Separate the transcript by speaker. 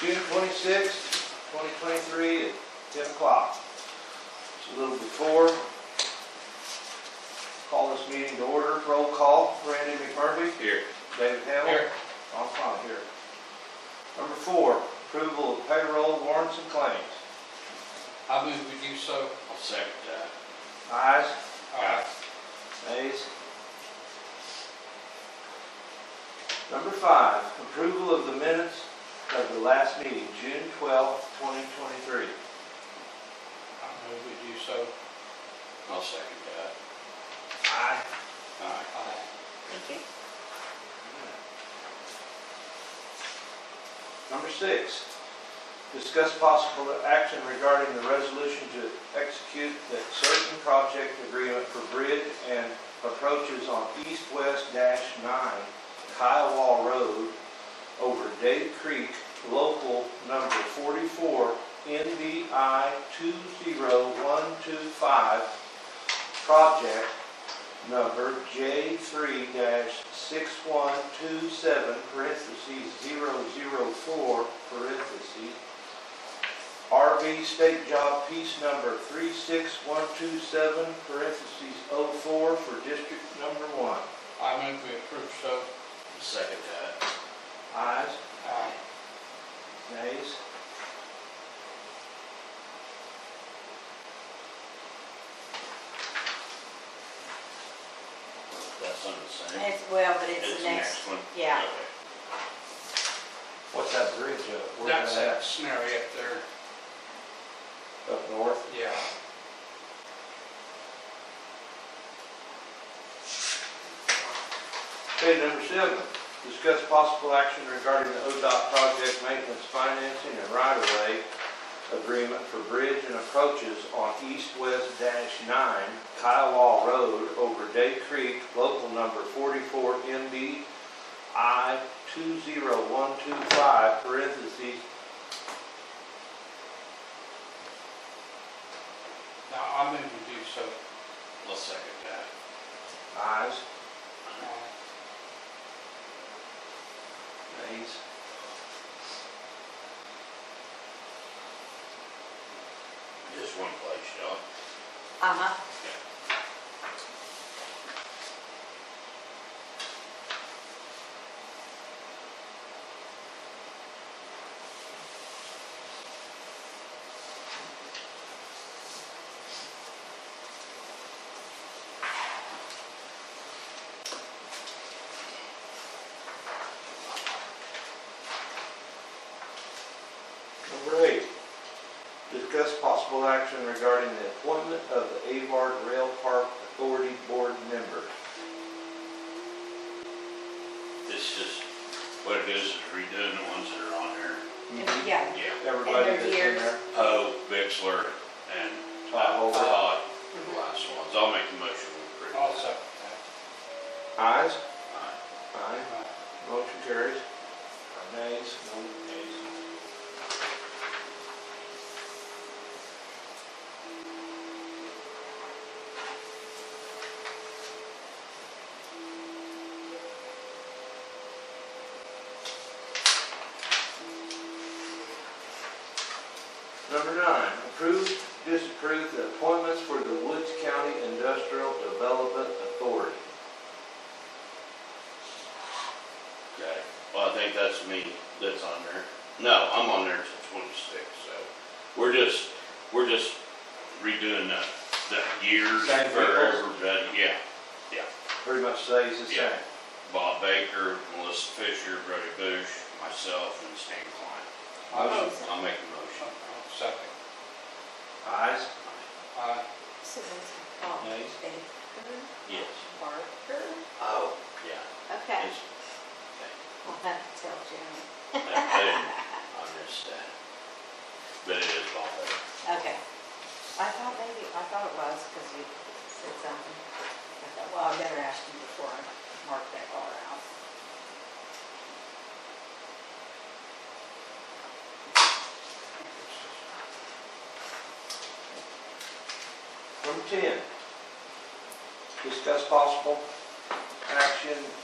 Speaker 1: June twenty-sixth, twenty twenty-three at ten o'clock. It's a little before. Call this meeting to order, roll call, Randy McMurphy,
Speaker 2: Here.
Speaker 1: David Hamel. Ron Fine here. Number four, approval of payroll warrants and claims.
Speaker 2: I move we do so. I'll second that.
Speaker 1: Ayes,
Speaker 2: Aye.
Speaker 1: Ayes. Number five, approval of the minutes of the last meeting, June twelfth, twenty twenty-three.
Speaker 2: I move we do so. I'll second that.
Speaker 1: Aye.
Speaker 2: Aye.
Speaker 3: Thank you.
Speaker 1: Number six, discuss possible action regarding the resolution to execute the certain project agreement for bridge and approaches on east-west dash nine Kiowa Road over Dave Creek, local number forty-four, NBI two zero one two five, project number J three six one two seven, parentheses, zero zero four, parentheses, RV State Job Piece number three six one two seven, parentheses, oh four, for District Number One.
Speaker 2: I move we approve so. Second that.
Speaker 1: Ayes,
Speaker 2: Aye.
Speaker 1: nays?
Speaker 2: That's under the same.
Speaker 3: It's, well, but it's the next,
Speaker 2: one.
Speaker 3: yeah.
Speaker 2: Okay.
Speaker 1: What's that bridge up? Where's
Speaker 2: That's that scenario up there.
Speaker 1: at? Up north?
Speaker 2: Yeah.
Speaker 1: Okay, number seven, discuss possible action regarding the ODOT project maintenance financing and right-of-way agreement for bridge and approaches on east-west dash nine Kiowa Road over Day Creek, local number forty-four MB I two zero one two five, parentheses,
Speaker 2: Now, I move we do so. I'll second that.
Speaker 1: ayes,
Speaker 2: Aye.
Speaker 1: nays.
Speaker 2: Just one place, John.
Speaker 3: Uh-huh.
Speaker 1: Number eight, discuss possible action regarding the appointment of the Avard Rail Park Authority Board member.
Speaker 4: It's just, what it is, is redoing the ones that are on there.
Speaker 1: Mm-hmm.
Speaker 3: Yeah,
Speaker 4: Yeah.
Speaker 1: Everybody that's in
Speaker 3: End of
Speaker 1: there.
Speaker 4: Poe, Bixler, and
Speaker 1: Todd
Speaker 4: Todd,
Speaker 1: Holbrook.
Speaker 4: were the last ones. I'll make the motion to approve.
Speaker 2: I'll second
Speaker 1: Ayes?
Speaker 4: Aye.
Speaker 1: Aye.
Speaker 2: that. Aye.
Speaker 1: Motion carries. Nays? No nays. Number nine, approve, disapprove the appointments for the Woods County Industrial Development Authority.
Speaker 4: Okay, well, I think that's me that's on there. No, I'm on there till twenty-six, so we're just, we're just redoing the, the years for
Speaker 1: Same peoples.
Speaker 4: everybody. Yeah,
Speaker 1: Pretty much stays the same.
Speaker 4: Yeah. Bob Baker, Melissa Fisher, Brody Bush, myself, and Stan Klein.
Speaker 2: I'll
Speaker 3: Motion.
Speaker 4: I'll make the motion.
Speaker 2: I'll second.
Speaker 1: Ayes?
Speaker 2: Aye.
Speaker 3: so that's, oh,
Speaker 1: Nice.
Speaker 3: Baker,
Speaker 4: Yes.
Speaker 3: Barker,
Speaker 4: Oh. Yeah.
Speaker 3: okay.
Speaker 4: It's-
Speaker 3: We'll have to tell Jim.
Speaker 4: I missed that. But it is all there.
Speaker 3: Okay. I thought maybe, I thought it was because you said something. I thought, well, I better ask him before I mark that R out.
Speaker 1: Number ten, discuss possible action